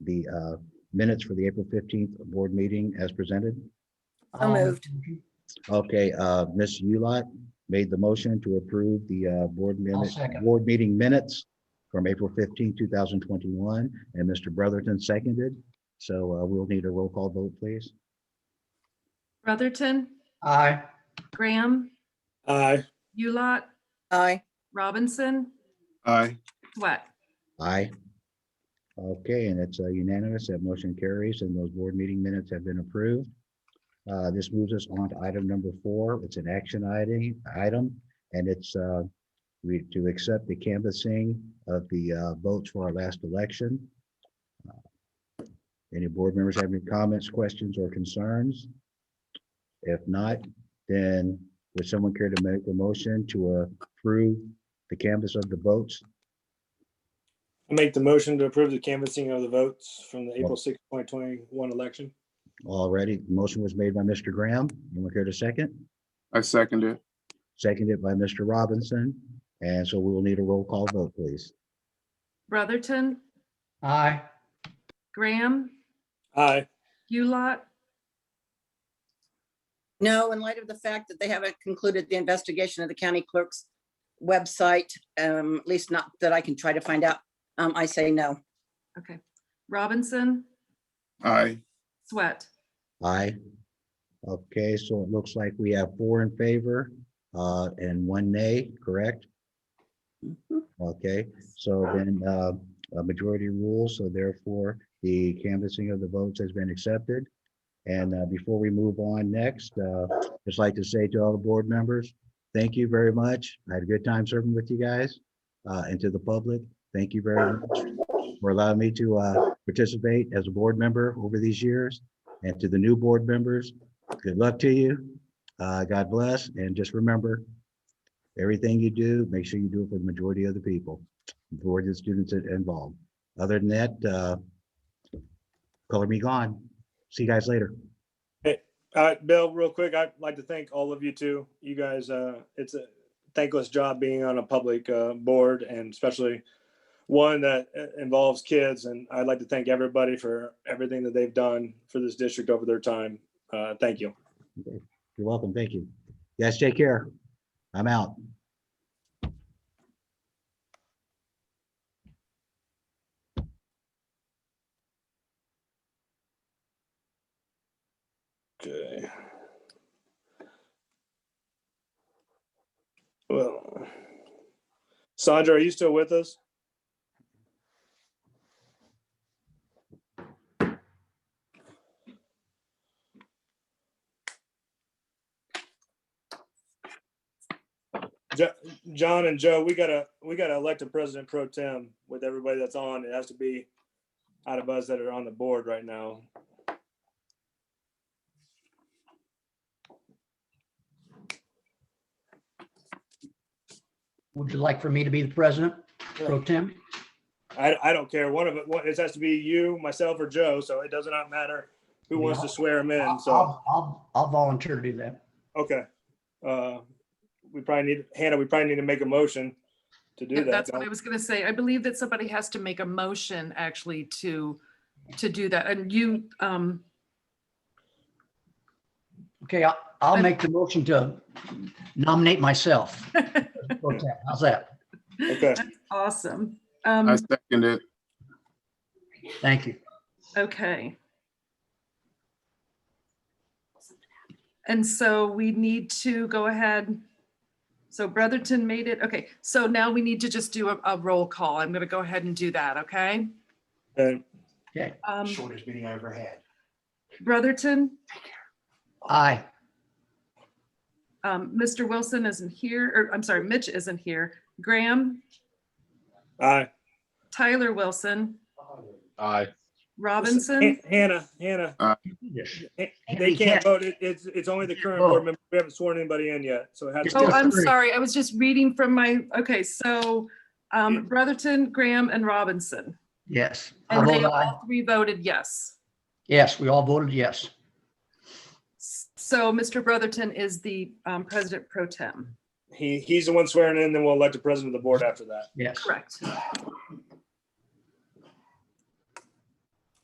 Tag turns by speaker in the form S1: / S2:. S1: the uh, minutes for the April 15th board meeting as presented.
S2: So
S3: Um,
S2: moved.
S1: Okay, uh, Ms. Ulot made the motion to approve the uh, board minutes,
S3: second.
S1: board meeting minutes from April 15, 2021, and Mr. Brotherton seconded. So uh, we'll need a roll call vote, please.
S4: Brotherton,
S3: Aye.
S4: Graham,
S5: Aye.
S4: Ulot,
S2: Aye.
S4: Robinson,
S5: Aye.
S4: Swack.
S1: Aye. Okay, and it's uh, unanimous. That motion carries and those board meeting minutes have been approved. Uh, This moves us on to item number four. It's an action item, item, and it's uh, we to accept the canvassing of the uh, votes for our last election. Uh, Any board members have any comments, questions, or concerns? If not, then would someone care to make a motion to approve the canvas of the votes
S5: I make the motion to approve the canvassing of the votes from the April 6, 2021 election.
S1: Already, motion was made by Mr. Graham. Anyone care to second?
S6: I second it.
S1: Seconded by Mr. Robinson. And so we will need a roll call vote, please.
S4: Brotherton,
S3: Aye.
S4: Graham,
S5: Aye.
S4: Ulot,
S2: No, in light of the fact that they haven't concluded the investigation of the county clerk's website, um, at least not that I can try to find out, um, I say no.
S4: okay. Robinson,
S6: Aye.
S4: Sweat.
S1: Aye. Okay, so it looks like we have four in favor uh, and one nay, correct? Okay, so then uh, a majority rule, so therefore the canvassing of the votes has been accepted. And uh, before we move on next, uh, just like to say to all the board members, thank you very much. I had a good time serving with you guys uh, and to the public. Thank you very much for allowing me to uh, participate as a board member over these years. And to the new board members, good luck to you. Uh, God bless, and just remember, everything you do, make sure you do it for the majority of the people, majority of the students in- involved. Other than that, uh, color me gone. See you guys later.
S5: Uh, Bill, real quick, I'd like to thank all of you too. You guys, uh, it's a thankless job being on a public, uh, board and especially one that uh, involves kids. And I'd like to thank everybody for everything that they've done for this district over their time. Uh, thank you.
S1: You're welcome. Thank you. You Guys, take care. I'm out.
S5: Okay. Well, Sandra, are you still with us? Jo- John and Joe, we gotta, we gotta elect a president pro tem with everybody that's on. It has to be out of us that are on the board right now.
S3: Would you like for me to be the president, pro tem?
S5: I, I don't care. One of it, one- it has to be you, myself, or Joe. So it does not matter who wants to swear him in.
S3: I'll,
S5: So,
S3: I'll, I'll volunteer to do that.
S5: okay. Uh, we probably need, Hannah, we probably need to make a motion to do that.
S4: That's what I was gonna say. I believe that somebody has to make a motion actually to, to do that. And you, um,
S3: Okay, I'll, I'll
S4: I'm-
S3: make the motion to nominate myself. pro tem. How's that?
S5: Okay.
S4: that's awesome.
S6: I
S4: Um,
S6: second it.
S3: Thank you.
S4: okay. And so we need to go ahead. So Brotherton made it. Okay, so now we need to just do a, a roll call. I'm gonna go ahead and do that, okay?
S5: And
S3: Okay,
S4: Um,
S7: shortest meeting I ever had.
S4: Brotherton,
S3: aye.
S4: um, Mr. Wilson isn't here, or I'm sorry, Mitch isn't here. Graham,
S5: I,
S4: Tyler Wilson,
S7: Aye.
S4: Robinson,
S5: Hannah, Hannah, eh, they
S3: You can't-
S5: can't vote. It- It's, it's only the current
S3: vote.
S5: board member. We haven't sworn anybody in yet. So it has
S4: Oh,
S5: to,
S4: I'm
S3: Three.
S4: sorry. I was just reading from my, okay, so um, Brotherton, Graham, and Robinson.
S3: Yes. I
S4: And they
S3: vote aye.
S4: all three voted yes.
S3: Yes, we all voted yes.
S4: So Mr. Brotherton is the um, president pro tem.
S5: he, he's the one swearing in, then we'll elect the president of the board after that.
S3: Yes.
S4: Correct.